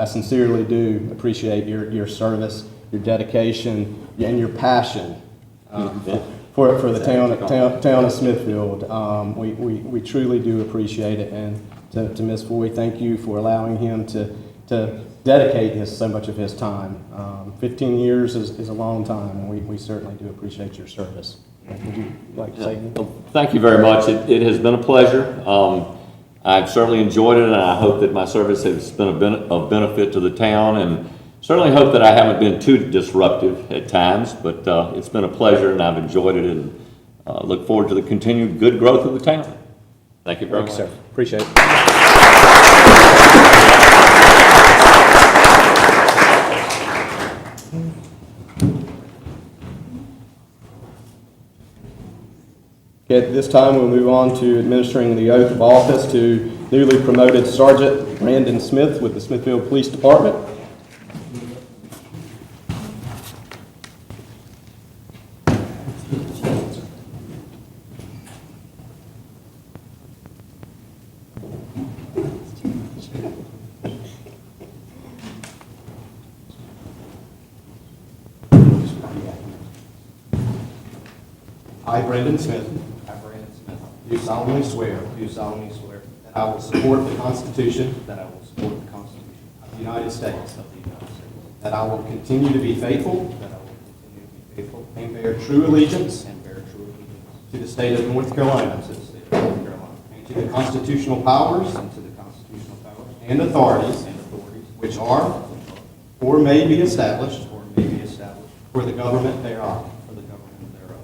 I sincerely do appreciate your, your service, your dedication, and your passion um, for, for the town, town town of Smithfield. Um, We, we we truly do appreciate it, and to, to Ms. Foy, thank you for allowing him to, to dedicate his, so much of his time. Um, Fifteen years is, is a long time, and we, we certainly do appreciate your service. Would you like to say anything? Well, Thank you very much. It, it has been a pleasure. Um, I've certainly enjoyed it, and I hope that my service has been a ben- of benefit to the town, and certainly hope that I haven't been too disruptive at times, but, uh, it's been a pleasure, and I've enjoyed it, and, uh, look forward to the continued good growth of the town. Thank you very Thank much. you, sir. Appreciate it. Okay, at this time, we'll move on to administering the oath of office to newly promoted Sergeant Brandon Smith with the Smithfield Police Department. I, Brendan Smith, I, Brandon Smith, do solemnly swear do solemnly swear that I will support the Constitution that I will support the Constitution of the United States, of the United States, that I will continue to be faithful that I will continue to be faithful and bear true allegiance and bear true allegiance to the state of North Carolina to the state of North Carolina and to the constitutional powers and to the constitutional powers and authorities and authorities which are or may be established or may be established for the government thereof, for the government thereof,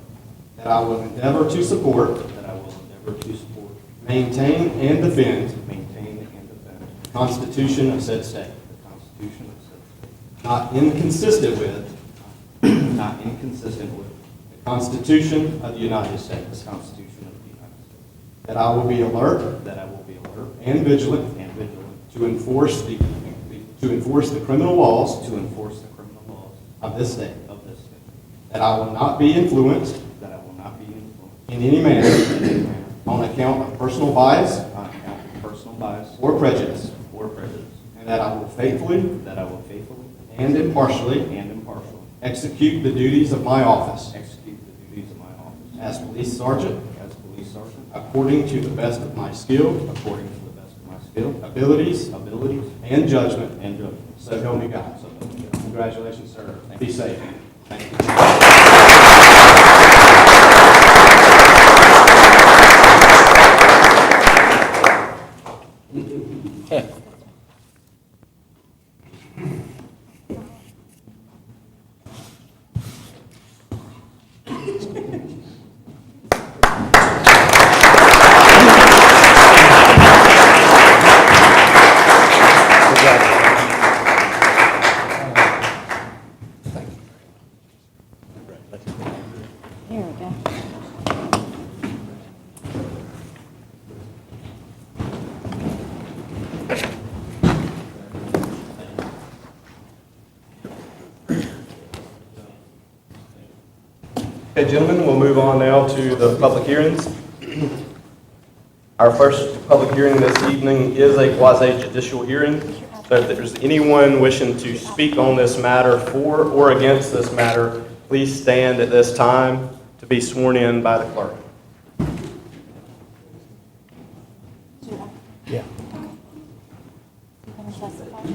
that I will endeavor to support, that I will endeavor to support, maintain, and defend maintain, and defend the Constitution of said state, the Constitution of not inconsistent with said state, not inconsistent with the Constitution of the United the States, Constitution of the United States, that I will be alert that I will be alert and vigilant and vigilant To enforce the, to enforce the criminal laws to enforce the criminal laws of this state. of this state, That I will not be influenced that I will not be influenced in any manner on account of personal bias on account of personal bias or prejudice. or prejudice, And that I will faithfully that I will faithfully and impartially and impartially execute the duties of my office execute the duties of my office as police sergeant as police sergeant according to the best of my skill, according to the best of my skill, abilities, abilities, and judgment. and judgment. So help me God. So help me God. Congratulations, sir. Be safe. Thank you. Here we go. Okay, gentlemen, we'll move on now to the public hearings. Our first public hearing this evening is a quasi-judicial hearing. So if there's anyone wishing to speak on this matter for or against this matter, please stand at this time to be sworn in by the clerk. Do you want- Yeah. you want to testify? Can you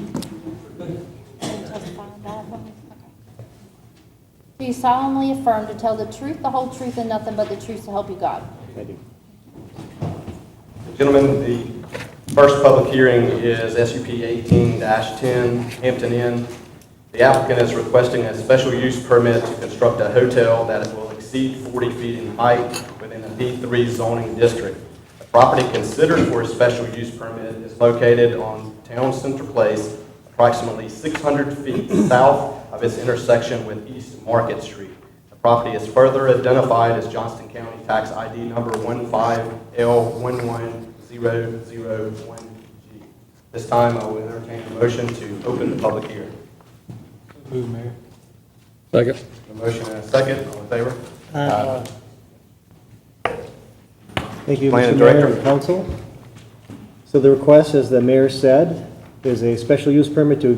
testify on that one? Okay. Do you solemnly affirm to tell the truth, the whole truth, and nothing but the truth to help you God? Gentlemen, the first public hearing is SUP 18-10 Hampton Inn. The applicant is requesting a special use permit to construct a hotel that will exceed 40 feet in height within a B3 zoning district. The property considered for a special use permit is located on Town Center Place, approximately 600 feet south of its intersection with East Market Street. The property is further identified as Johnston County Tax ID number 15L11001G. This time, I will entertain a motion to open the public hearing. Second. A motion and a second, all in favor? Thank you, Planning Mr. Mayor Director. and Council. So the request, as the mayor said, is a special use permit to